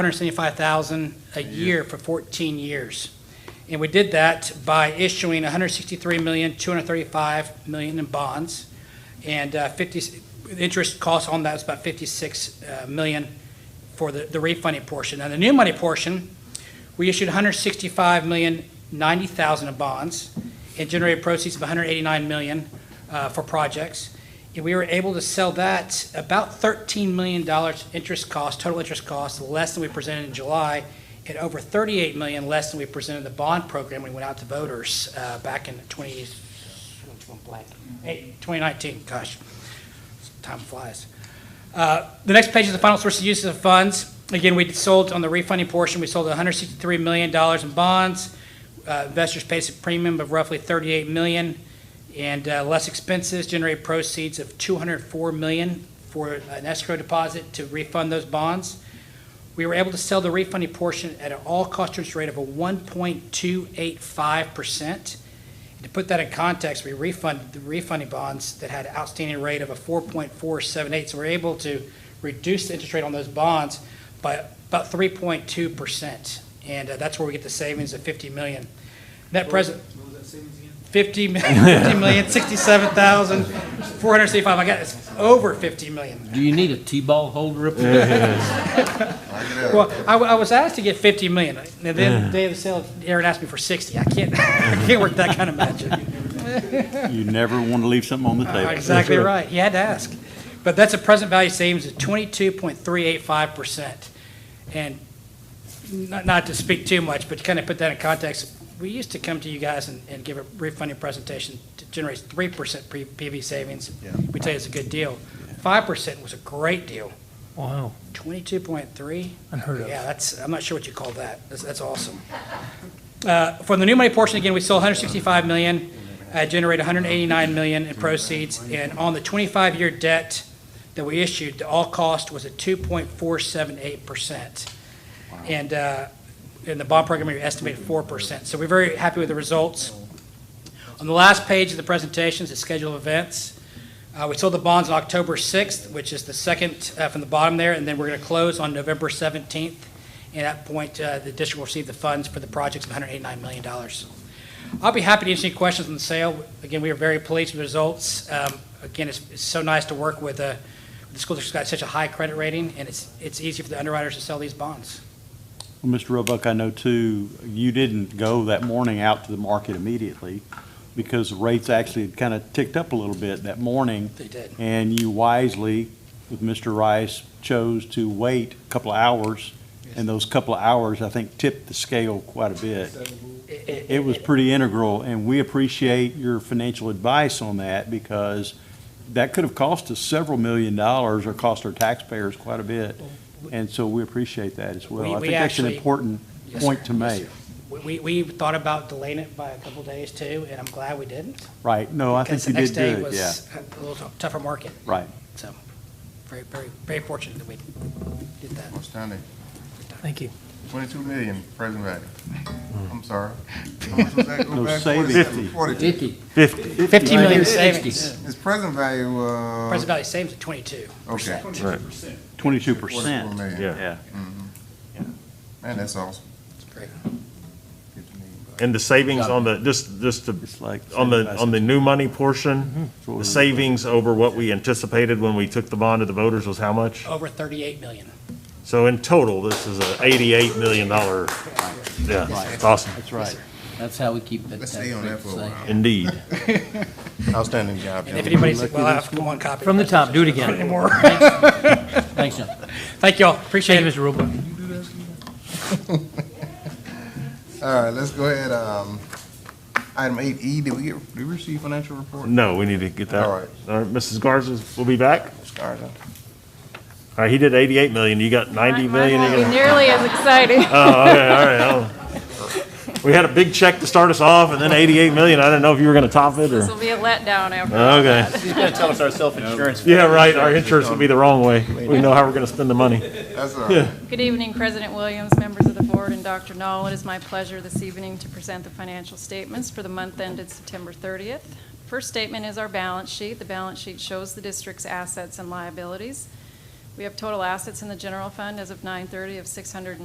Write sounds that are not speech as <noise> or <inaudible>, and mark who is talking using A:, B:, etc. A: 175,000 a year for 14 years. And we did that by issuing 163 million, 235 million in bonds, and uh, 50, the interest cost on that was about 56 uh, million for the the refunding portion. Now, the new money portion, we issued 165 million, 90,000 in bonds, and generated proceeds of 189 million uh, for projects. And we were able to sell that about $13 million interest cost, total interest cost, less than we presented in July, and over $38 million less than we presented in the bond program when we went out to voters uh, back in 20, blank, eight- 2019, gosh, time flies. Uh, The next page is the final source and uses of funds. Again, we sold on the refunding portion, we sold $163 million in bonds. Uh, Investors paid a premium of roughly $38 million, and uh, less expenses generated proceeds of $204 million for an escrow deposit to refund those bonds. We were able to sell the refunding portion at an all-cost interest rate of a 1.285%. To put that in context, we refunded the refunding bonds that had outstanding rate of a 4.478. So we're able to reduce the interest rate on those bonds by about 3.2%. And uh, that's where we get the savings of 50 million. Net present,
B: What was that savings again?
A: 50 million, 67,465. I got, it's over 50 million.
C: Do you need a T-ball holder up there?
A: Well, I, I was asked to get 50 million, and then the day of the sale, Aaron asked me for 60. I can't, <laughs> I can't work that kind of magic.
D: You never want to leave something on the table.
A: Uh, Exactly right. You had to ask. But that's a present value savings of 22.385%. And not, not to speak too much, but to kind of put that in context, we used to come to you guys and, and give a refunding presentation that generates 3% pre- PV savings.
D: Yeah.
A: We tell you it's a good deal. 5% was a great deal.
E: Wow,
A: 22.3?
E: unheard of.
A: Yeah, that's, I'm not sure what you call that. That's, that's awesome. Uh, For the new money portion, again, we sold 165 million, uh, generated 189 million in proceeds. And on the 25-year debt that we issued, the all cost was at 2.478%. And uh, in the bond program, we estimated 4%. So we're very happy with the results. On the last page of the presentation is the schedule of events. Uh, We sold the bonds on October 6th, which is the second uh, from the bottom there, and then we're going to close on November 17th. And at that point, uh, the district will receive the funds for the projects of $189 million. I'll be happy to answer any questions on the sale. Again, we are very pleased with the results. Um, Again, it's it's so nice to work with uh, the school district's got such a high credit rating, and it's it's easy for the underwriters to sell these bonds.
D: Well, Mr. Roebuck, I know too, you didn't go that morning out to the market immediately because rates actually had kind of ticked up a little bit that morning.
A: They did.
D: And you wisely, with Mr. Rice, chose to wait a couple of hours. And those couple of hours, I think, tipped the scale quite a bit. It was pretty integral, and we appreciate your financial advice on that because that could have cost us several million dollars or cost our taxpayers quite a bit. And so we appreciate that as
A: We-
D: well. I
A: we
D: think that's an
A: actually-
D: important
A: Yes,
D: point
A: sir.
D: to
A: Yes,
D: make.
A: We- We we thought about delaying it by a couple days, too, and I'm glad we didn't.
D: Right, no, I
A: Because
D: think
A: the
D: you
A: next
D: did
A: day
D: good, yeah,
A: was a little tou- tougher market.
D: right.
A: So, very, very, very fortunate that we did that.
F: Outstanding.
E: Thank you.
F: Twenty-two million present value. I'm sorry. How much was that? Go
D: No
F: back.
D: savings.
F: 47, 42.
C: Fifty.
D: Fifty.
A: 15 million
C: Right.
A: savings.
F: His present value, uh.
A: Present value savings of 22.
F: Okay.
D: Twenty-two
F: Forty-four
D: percent,
F: million.
G: Yeah,
D: yeah.
F: Man, that's awesome.
A: great.
F: Fifty million bucks.
G: and the savings on the, just, just to,
D: It's like
G: on the,
D: 75
G: on the new money portion,
D: what
G: the
D: we-
G: savings over what we anticipated when we took the bond to the voters was how much?
A: Over 38 million.
G: So in total, this is a eighty-eight million dollar, yeah, it's awesome,
D: That's right.
C: That's how we keep the
F: Let's stay on that
C: tax
F: for
C: rate
F: a
C: safe.
F: while.
G: indeed.
F: Outstanding
A: <laughs>
F: job.
A: And if
F: gentlemen.
A: anybody's, well, I have one copy.
E: From the top, do it again.
A: Anymore.
C: Thanks, John.
A: Thank you all, appreciate
E: Thank you,
A: it.
E: Mr. Roebuck.
F: All right, let's go ahead, um, item eight E, did we get, did we receive financial report?
G: No, we need to get that.
F: All right.
G: All right, Mrs. Garza will be back.
F: Scarlett.
G: All right, he did eighty-eight million, you got ninety million. you got-
H: Nearly as
G: <laughs>
H: exciting.
G: Oh, okay, all right, I'll- We had a big check to start us off and then eighty-eight million, I didn't know if you were gonna top it or,
H: This will be a letdown after.
G: okay.
I: He's gonna tell us our self-insurance.
G: Yeah, right, our insurance will be the wrong way. We know how we're gonna spend the money.
F: That's uh, all right.
H: Good evening, President Williams, members of the board, and Dr. Knoll. It is my pleasure this evening to present the financial statements for the month ended September 30th. First statement is our balance sheet. The balance sheet shows the district's assets and liabilities. We have total assets in the general fund as of 9:30 of 600.